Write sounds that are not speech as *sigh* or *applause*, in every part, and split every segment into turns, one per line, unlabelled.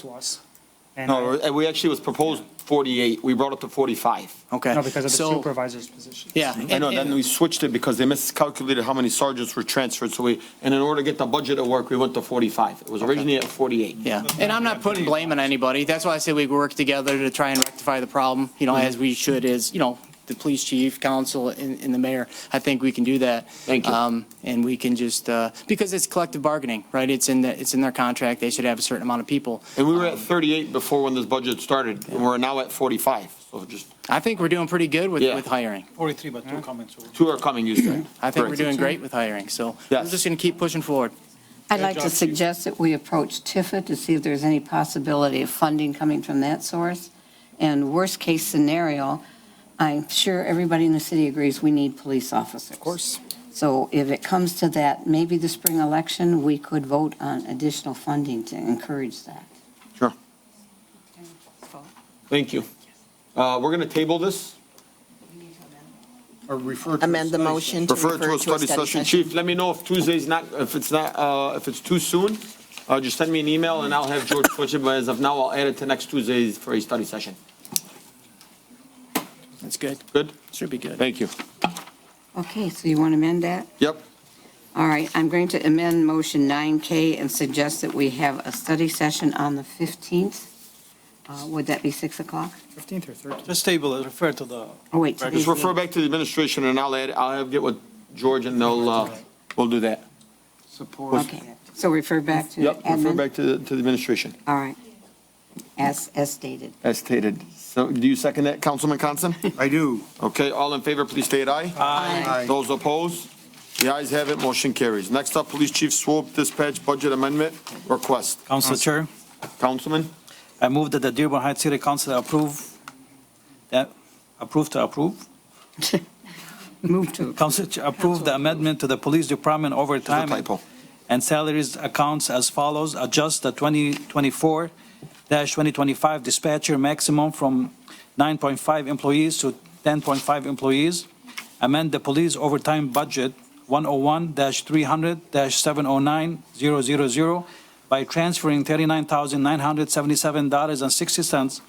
to us. And
Oh,
No,
I-
it we actually was proposed 48, we brought it to 45.
Okay.
uh, No, because of the
So-
supervisor's position.
Mm-hmm. Yeah.
I know, then we switched it because they miscalculated how many sergeants were transferred, so we, and in order to get the budget to work, we went to 45. It was originally at 48.
Yeah, and I'm not putting blame on anybody. That's why I say we work together to try and rectify the problem, you know,
Mm-hmm.
as we should is, you know, the police chief, council, and, and the mayor. I think we can do that.
Thank you.
Um, and we can just, uh, because it's collective bargaining, right? It's in the, it's in their contract. They should have a certain amount of people.
And we were at 38 before when this budget started, and we're now at 45. So just,
I think we're doing pretty good with,
Yeah.
with hiring.
43, but two comments. over.
two are coming, you said.
I think we're
Correct.
doing great with hiring, so we're
Yes.
just gonna keep pushing forward.
I'd like to suggest that we approach Tifa to see if there's any possibility of funding coming from that source. And worst-case scenario, I'm sure everybody in the city agrees we need police officers. Of
course.
So if it comes to that, maybe the spring election, we could vote on additional funding to encourage that.
Sure. Thank you. Uh, We're going to table this,
Or refer to.
amend the motion to
refer to a study session. Chief, let me know if Tuesday's not, if it's not, uh, if it's too soon, Uh, just send me an email, and I'll have George switch it, but as of now, I'll add it to next Tuesday for a study session.
That's good.
Good?
Should be good.
Thank you.
Okay, so you want to amend that?
Yep.
All right, I'm going to amend motion 9K and suggest that we have a study session on the 15th. Uh, Would that be 6 o'clock?
15th or 13th?
Just table it, refer to the.
Oh, wait.
Just
today's
Just refer
meeting.
back to the administration, and I'll add, I'll have, get with George, and they'll, uh, we'll do that.
Support.
Okay, so refer back to
Yep, refer
admin?
back to, the- to the administration,
All right. As, as stated.
as stated. So, do you second that, Councilman Constant?
I do.
Okay, all in favor, please state aye.
Aye.
Those opposed? The ayes have it, motion carries. Next up, Police Chief Swope Dispatch Budget Amendment Request.
Council Chair,
Councilman?
I move that the Dearborn Heights City Council approve, that, approve to approve.
Move to.
Council Ch- approve the amendment to the police department
There's
overtime
a typo.
and salaries accounts as follows. Adjust the 2024-2025 dispatcher maximum from 9.5 employees to 10.5 employees. Amend the police overtime budget 101-300-709-000 by transferring $39,977.60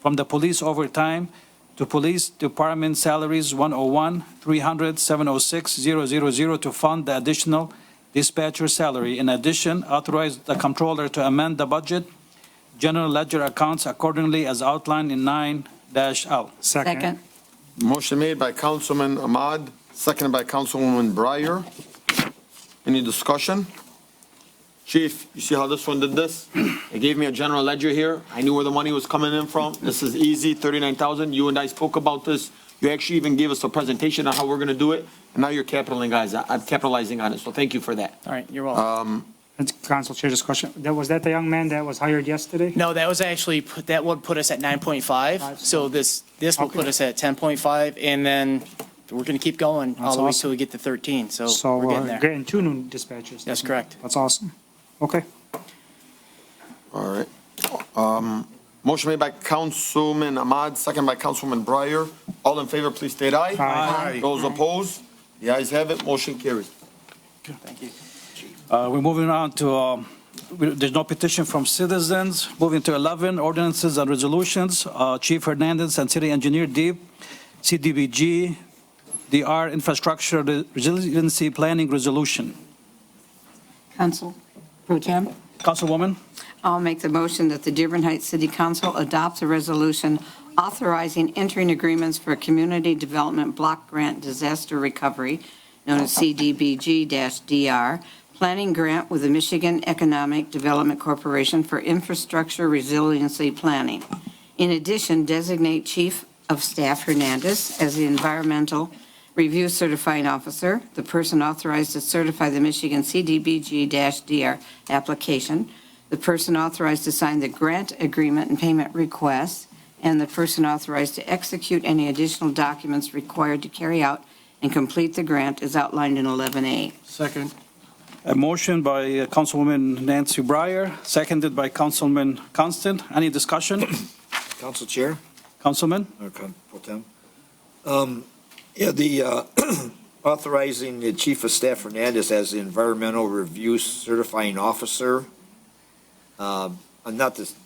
from the police overtime to police department salaries 101-300-706-000 to fund the additional dispatcher salary. In addition, authorize the comptroller to amend the budget, general ledger accounts accordingly as outlined in nine dash L.
Second.
Motion made by Councilman Ahmad, seconded by Councilwoman Breyer. Any discussion? Chief, you see how this one did this? They gave me a general ledger here. I knew where the money was coming in from. This is easy, 39,000. You and I spoke about this. You actually even gave us a presentation on how we're going to do it, and now you're capitalizing, guys. I'm capitalizing on it, so thank you for that.
All right, you're welcome.
That's Council Chair, just question, that, was that the young man that was hired yesterday?
No, that was actually, put- that would put us at 9.5, so this, this will put
Okay.
us at 10.5, and then we're going to keep going all
That's
the way
awesome.
till we get to 13, so
So uh,
we're
we're
getting there.
getting two new dispatchers.
That's correct.
That's awesome. Okay.
All right. Um, Motion made by Councilman Ahmad, seconded by Councilwoman Breyer. All in favor, please state aye.
Aye.
Those opposed? The ayes have it, motion carries.
Uh, We're moving on to, um, we- there's no petition from citizens. Moving to 11, ordinances and resolutions. Uh, Chief Hernandez and City Engineer Deep, CDBG, DR Infrastructure Resiliency Planning Resolution.
Council Pro Tem?
Councilwoman?
I'll make the motion that the Dearborn Heights City Council adopts a resolution authorizing entering agreements for Community Development Block Grant Disaster Recovery, known as CDBG-DR, planning grant with the Michigan Economic Development Corporation for infrastructure resiliency planning. In addition, designate Chief of Staff Hernandez as the environmental review certifying officer, the person authorized to certify the Michigan CDBG-DR application, the person authorized to sign the grant agreement and payment request, and the person authorized to execute any additional documents required to carry out and complete the grant is outlined in 11A.
Second. A motion by uh, Councilwoman Nancy Breyer, seconded by Councilman Constant. Any discussion?
Council Chair,
Councilman?
or Con- Pro Tem. Um, Yeah, the uh, *clears throat* authorizing the Chief of Staff Hernandez as the Environmental Review Certifying Officer. Um, I'm not the